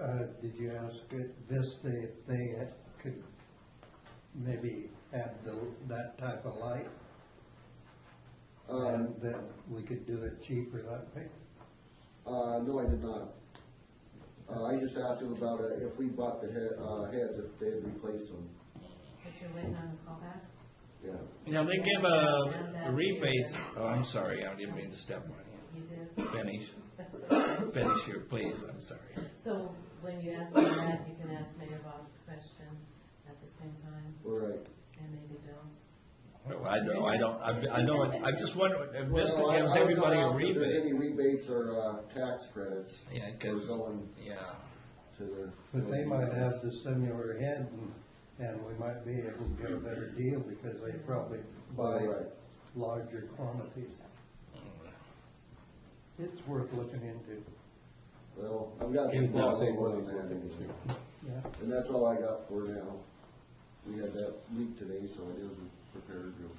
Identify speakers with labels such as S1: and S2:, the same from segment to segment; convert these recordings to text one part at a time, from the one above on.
S1: Uh, Did you ask Vista if they had- could maybe add the, that type of light?
S2: Um,
S1: And then we could do it cheaper that way?
S2: uh, no, I did not. Uh, I just asked him about uh, if we bought the he- uh, heads, if they'd replace them,
S3: But you're waiting on a callback?
S2: yeah.
S4: Now, they give a rebates, oh, I'm sorry, I didn't mean to step on
S3: You did?
S4: you. Finish,
S3: That's okay.
S4: finish here, please, I'm sorry.
S3: So when you ask me that, you can ask Mayor Bob's question at the same time,
S2: All right.
S3: and maybe Bill's.
S4: Well, I know, I don't, I I know, I just wonder, if Vista
S2: Well, I- I was
S4: gives
S2: gonna
S4: everybody a
S2: ask if There's any
S4: rebate.
S2: rebates or, uh, tax credits.
S4: Yeah,
S2: for
S4: 'cause-
S2: Going
S4: Yeah.
S2: to the.
S1: But they might have the similar head and, and we might be able to get a better deal because they probably buy
S2: Right.
S1: larger quantities. It's worth looking into,
S2: Well, I've got
S5: In
S2: to follow
S5: Plaza,
S2: up on
S5: what
S2: that
S5: is it?
S2: anyway.
S1: yeah.
S2: And that's all I got for now. We had that leak today, so I wasn't prepared real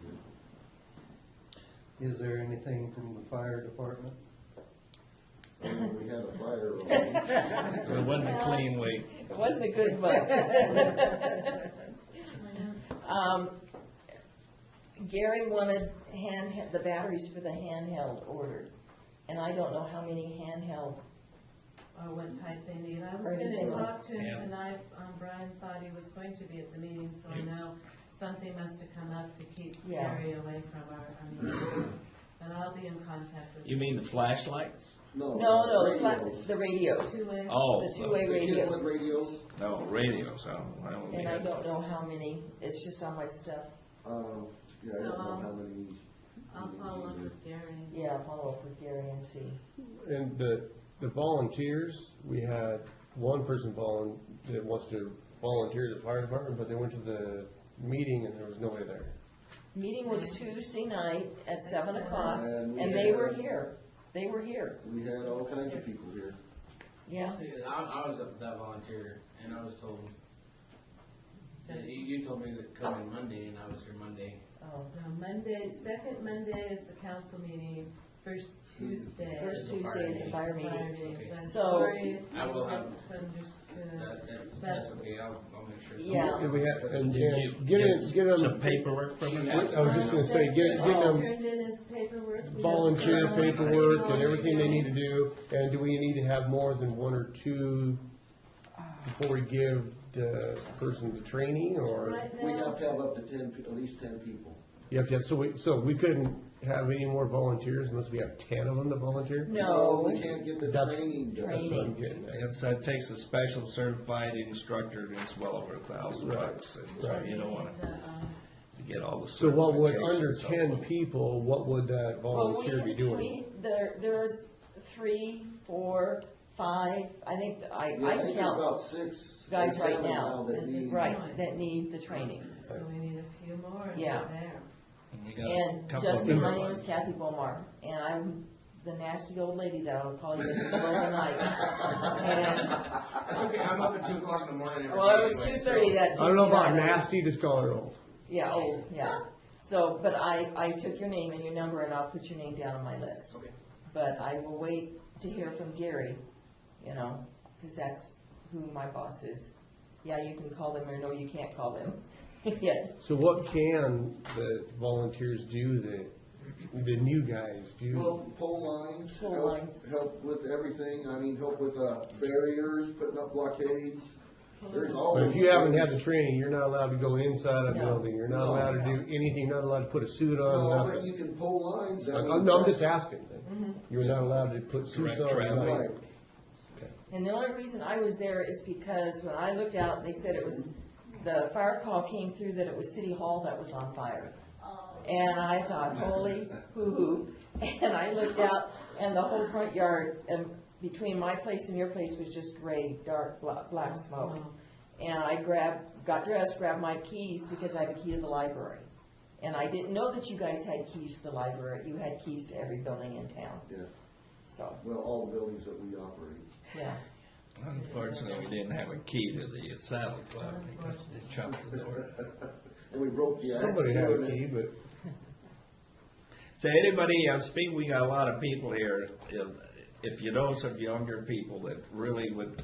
S2: good.
S1: Is there anything from the fire department?
S2: Uh, We had a fire alarm.
S4: It wasn't a clean week.
S6: It wasn't a good month. Um, Gary wanted hand, the batteries for the handheld ordered, and I don't know how many handheld,
S3: or what type they need. I was
S6: Or
S3: gonna
S6: anything like-
S3: talk to
S4: Yeah.
S3: him tonight, um, Brian thought he was going to be at the meeting, so I
S4: Yeah.
S3: know something must have come up to keep
S6: Yeah.
S3: Gary away from our, I mean, but I'll be in contact with
S4: You mean the flashlights?
S2: No.
S6: no, no, the fla-
S2: radios.
S6: the radios,
S3: two ways.
S4: Oh.
S6: the two-way
S2: The kids with
S6: radios.
S2: radios,
S4: No, radios, I don't, I don't
S6: And I
S4: need it.
S6: don't know how many, it's just on my stuff,
S2: uh, yeah, I don't know how many.
S3: I'll follow up with Gary.
S6: yeah, I'll follow up with Gary and see.
S5: And the, the volunteers, we had one person volun, that wants to volunteer at the fire department, but they went to the meeting and there was nobody there.
S6: Meeting was Tuesday night at seven o'clock,
S2: And Uh, we
S6: and they were
S2: had-
S6: here, they were here,
S2: We had all kinds of people here.
S6: yeah.
S7: Yeah, I, I was up with that volunteer, and I was told,
S3: Just-
S7: you, you told me that coming Monday, and I was here Monday.
S6: Oh,
S3: No, Monday, second Monday is the council meeting, first Tuesday.
S6: First
S7: Tuesday
S6: Tuesday is a fire meeting.
S3: Fridays. I'm
S6: So-
S3: sorry if
S7: I will have-
S3: you misunderstood.
S7: That, that, that's okay, I'll, I'll make sure. it's on.
S6: Uh, Yeah.
S5: And we had, and,
S4: Did you
S5: and get it, get them.
S4: Some paperwork from
S5: I was
S4: them?
S5: just gonna say, get,
S3: That's
S5: get
S3: all
S5: them
S3: Turned in his paperwork. We have
S5: volunteer
S3: some-
S5: paperwork and everything they need to do, and do we need to have more than one or two before we give the person the training, or?
S3: Right
S2: We
S3: now,
S2: have to have up to ten, pe- at least ten people.
S5: You have to have, so we, so we couldn't have any more volunteers unless we have ten of them to volunteer?
S6: No.
S2: We can't get the
S5: That's-
S2: training
S5: That's
S2: done.
S5: what I'm getting at.
S4: It's, it takes a special certified instructor, and it's well over a thousand bucks, and so
S5: Right.
S4: you don't wanna
S3: we need to, um,
S2: uh,
S4: get all the certifications.
S5: So what would, under
S4: so
S5: ten
S4: forth.
S5: people, what would that
S6: Well, we-
S5: volunteer be doing?
S6: we- There, there's three, four, five, I think, I,
S2: Yeah, I
S6: I
S2: think there's
S6: count,
S2: about six. or
S6: guys right
S2: seven
S6: now.
S2: that
S3: And this-
S2: need-
S6: right, that need the training.
S3: So we need a few more and
S6: Yeah.
S3: we're there.
S4: And you got a
S6: And
S4: couple of
S6: Justin, my
S4: newer
S6: name
S4: ones.
S6: is Kathy Bomar, and I'm the nasty old lady that I'll call you in the middle of the night. And,
S7: That's okay, I'm up at two o'clock in the morning every day.
S6: well, it was two
S7: anyway,
S6: thirty
S7: so-
S6: that
S5: I
S6: Tuesday night.
S5: don't know about nasty, just call it old.
S6: Yeah, oh, yeah. So, but I, I took your name and your number, and I'll put your name down on my list.
S7: Okay.
S6: But I will wait to hear from Gary, you know, because that's who my boss is. Yeah, you can call them, or no, you can't call them. Yeah,
S5: So what can the volunteers do that the new guys do?
S2: Well, pole lines,
S6: Pole
S2: help,
S6: lines.
S2: help with everything, I mean, help with, uh, barriers, putting up blockades, there's all.
S5: But if
S2: those
S5: you haven't had the
S2: things.
S5: training, you're not allowed to go inside a
S6: No.
S5: building, you're not
S2: No.
S5: allowed to do anything, not allowed to put a suit
S2: No,
S5: on,
S2: but you Mm-hmm.
S5: nothing.
S2: can pole lines, I
S5: I'm,
S2: mean.
S5: no, I'm
S2: that's-
S5: just asking. You're not allowed to put suits
S4: Direct
S5: on. or
S4: traffic.
S5: nothing.
S2: Right,
S6: And the only reason I was there is because when I looked out, they said it was, the fire call came through that it was City Hall that was on fire. And I thought, holy hoo-hoo. And I looked out, and the whole front yard, and between my place and your place was just gray, dark, bla- black smoke. And I grabbed, got dressed, grabbed my keys, because I have a key to the library. And I didn't know that you guys had keys to the library, you had keys to every building in town,
S2: yeah,
S6: so,
S2: well, all the buildings that we operate.
S6: yeah.
S4: Unfortunately, we didn't have a key to the saddle club, because they chopped the door.
S2: And we broke the axe.
S5: Somebody had a
S2: doing it.
S5: key, but.
S4: So anybody, I'm speaking, we got a lot of people here, if, if you know some younger people that really would